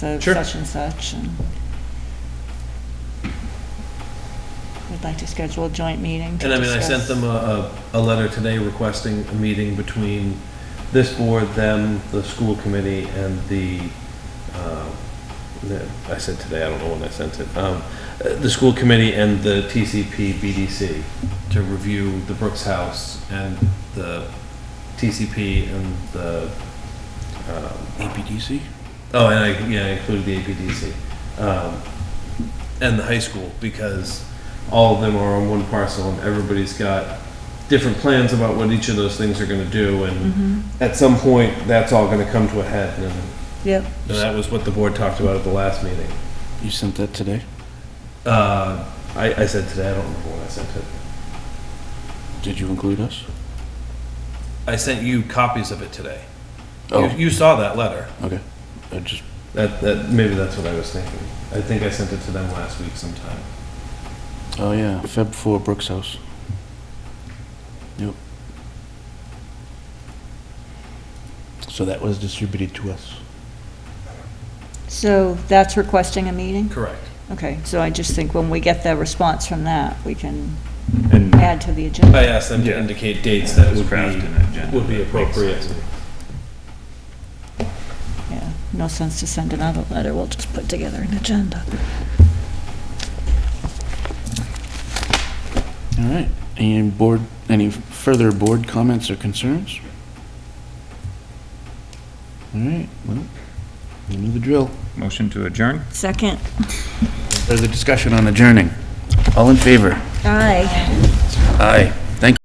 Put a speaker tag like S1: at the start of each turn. S1: so
S2: Sure.
S1: such and such, and we'd like to schedule a joint meeting to
S2: And I mean, I sent
S1: discuss-
S2: them a, a, a letter today requesting a meeting between this board, them, the school committee, and the, uh, the- I said today, I don't know when I sent it, um, uh, the school committee and the TCP BDC to review the Brooks House and the TCP and the,
S3: APDC?
S2: oh, and I, yeah, I included the APDC, um, and the high school, because all of them are on one parcel, and everybody's got different plans about what each of those things are gonna do, and at some point, that's all gonna come to a head, and,
S1: Yep,
S2: and that was what the board talked about at the last meeting.
S3: You sent that today?
S2: Uh, I, I said today, I don't remember when I sent it.
S3: Did you include us?
S2: I sent you copies of it today. You,
S3: Oh,
S2: you saw that letter.
S3: okay. I just,
S2: That, that, maybe that's what I was thinking. I think I sent it to them last week sometime.
S3: oh yeah, Feb 4 Brooks House. Yep. So that was distributed to us.
S1: so that's requesting a meeting?
S2: Correct.
S1: Okay, so I just think when we get the response from that, we can
S4: And
S1: add to the agenda.
S2: I asked them to
S4: Yeah.
S2: indicate dates that would
S4: craft
S2: be,
S4: an agenda
S2: would be
S4: that makes
S2: appropriate.
S4: sense.
S1: Yeah, no sense to send another letter, we'll just put together an agenda.
S3: All right. Any board, any further board comments or concerns? All right, well, you know the drill.
S4: Motion to adjourn?
S1: Second,
S3: Further discussion on adjourning. All in favor?
S1: aye.
S3: Aye.